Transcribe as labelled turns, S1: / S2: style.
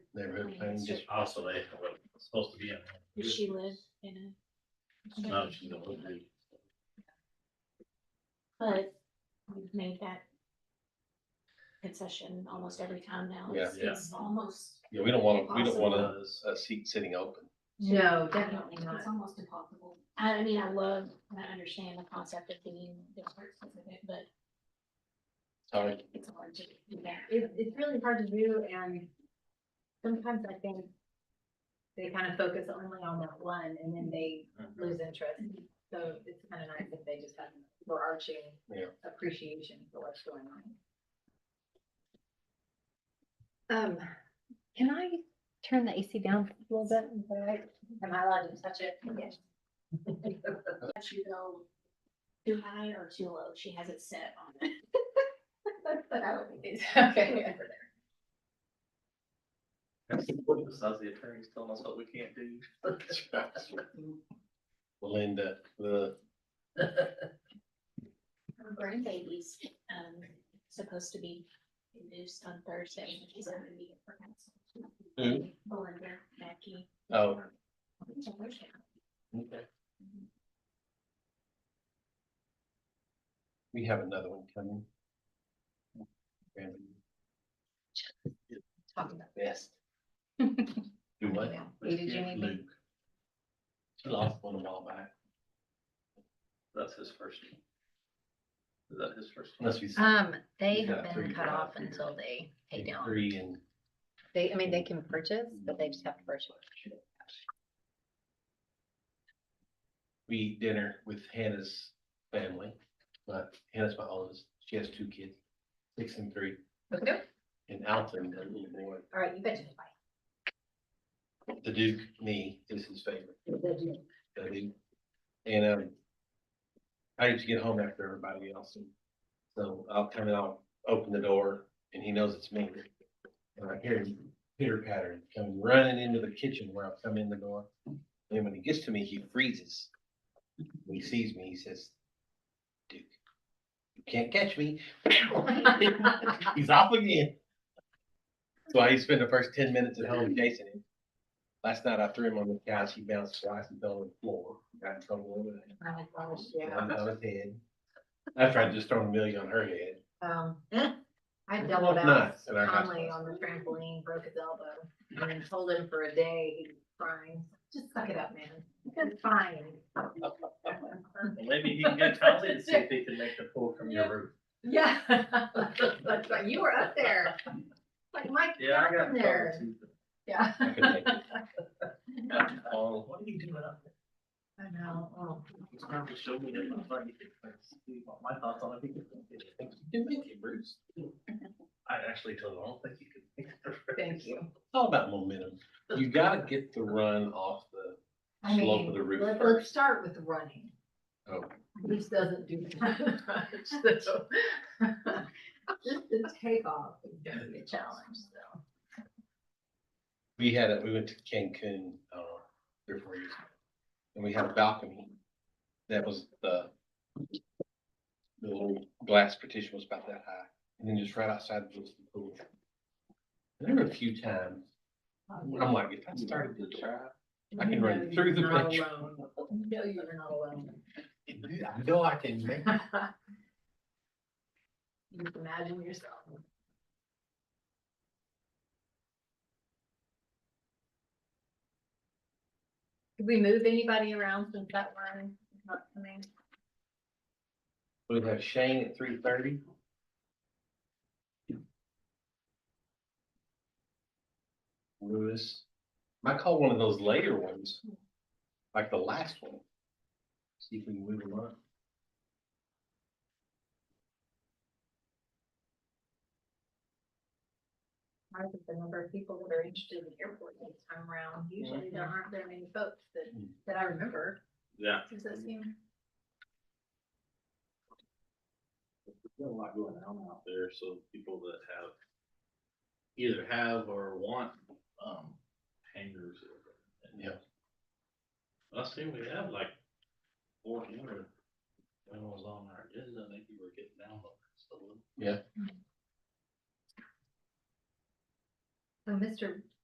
S1: neighborhood planning district.
S2: Also, they were supposed to be in.
S3: Does she live in a?
S2: No, she's in Woodbury.
S3: But we've made that concession almost every time now.
S1: Yeah.
S3: It's- It's almost,
S1: Yeah, we don't wanna, we don't wanna
S2: Does-
S1: a seat sitting open.
S4: No, Oh, definitely
S3: It's
S4: not.
S3: almost impossible. I, I mean, I love, and I understand the concept of being the person with it, but
S1: Sorry,
S3: it's hard to do that.
S4: It, it's really hard to do and sometimes I think they kind of focus only on that one and then they
S1: Mm-hmm.
S4: lose interest. So it's kind of nice if they just have an overarching
S1: Yeah.
S4: appreciation for what's going on. Um,
S5: Can I turn the AC down a little bit?
S4: am I allowed to touch it? Yes.
S3: Let you go too high or too low. She has it set on it.
S4: But I would be, okay.
S2: Besides the attorneys telling us what we can't do.
S1: Linda, the,
S3: Her grandbaby's, um, supposed to be induced on Thursday. and She's having a meeting for council.
S1: Who?
S3: Belinda, Mackie.
S1: oh, we have another one coming. And-
S4: Talking about
S1: Yes. Do what?
S4: Yeah. Who did you meet?
S2: Luke,
S1: She lost one a while back,
S2: that's his first. name. Is that his first? name?
S1: unless we.
S4: Um, they
S1: You've
S4: have
S1: got
S4: been
S1: three
S4: cut
S1: drive
S4: off
S1: through.
S4: until they pay down.
S1: Three and
S4: They, I mean, they can purchase, but they just have to purchase.
S1: we eat dinner with Hannah's family, but Hannah's my oldest, she has two kids, six and three,
S4: Okay,
S1: and Alton, the little boy,
S4: all right, you betcha.
S1: the Duke, me, is his favorite. that I did. And um, I used to get home after everybody else. and So I'll come and I'll open the door and he knows it's me. And I hear him pitter pattering, coming running into the kitchen where I've come in the door. And when he gets to me, he freezes. When he sees me, he says, Duke, you can't catch me. He's off again. So I spent the first ten minutes at home chasing him. Last night I threw him on the couch, he bounced twice and fell on the floor, got in trouble over that.
S4: Yeah.
S1: On his head. I tried to just throw a million on her head.
S4: Um, I doubled out
S1: Nice, and I got
S4: calmly
S1: you.
S4: on the trampoline, broke his elbow, and then told him for a day, he was crying, just suck it up, man, it's fine.
S2: Well, Maybe he can get Tommy and see if he can make the pull from your roof.
S4: Yeah, that's right, you were up there, like Mike,
S2: Yeah, I
S4: down
S2: got.
S4: from there,
S2: Tommy
S4: yeah.
S1: I could take it.
S2: too. Oh, what are you doing up there?
S4: I know, oh.
S2: He's trying to show me that my body can fix- see what My thoughts on it. He can fix it.
S1: You can make it, Bruce.
S2: I actually told him, I don't think you can. fix it.
S4: Thank you.
S1: It's all about momentum. You gotta get the run off the,
S4: I
S1: Slope of
S4: mean,
S1: the roof
S4: let- Let's
S1: first.
S4: start with running.
S1: oh,
S4: This doesn't do that much, so. Just the takeoff is gonna be a challenge, so.
S1: we had, a we went to Cancun, I don't know, three or four years ago. And we had a balcony that was the the little glass partition was about that high. And then just right outside was the pool. And There were a few times, I'm like, if I started to try, I can run
S4: No,
S1: through the
S4: you're not
S1: picture.
S4: alone. No, you're not alone.
S1: I know I can make.
S4: You can imagine yourself. Did we move anybody around since that one? is not coming?
S1: We have Shane at three thirty. Lewis, might call one of those later ones, like the last one. See if we can move them up.
S4: I think the number of people that are interested in the airport this time around, usually there aren't very many folks that,
S1: Mm.
S4: that I remember.
S2: Yeah.
S4: Does that seem?
S2: There's been a lot going on out there, so people that have either have or want, um, hangers.
S1: Yeah.
S2: I see we have like four hundred. When was on our agenda, I think you were getting down. on it, so
S4: So Mr.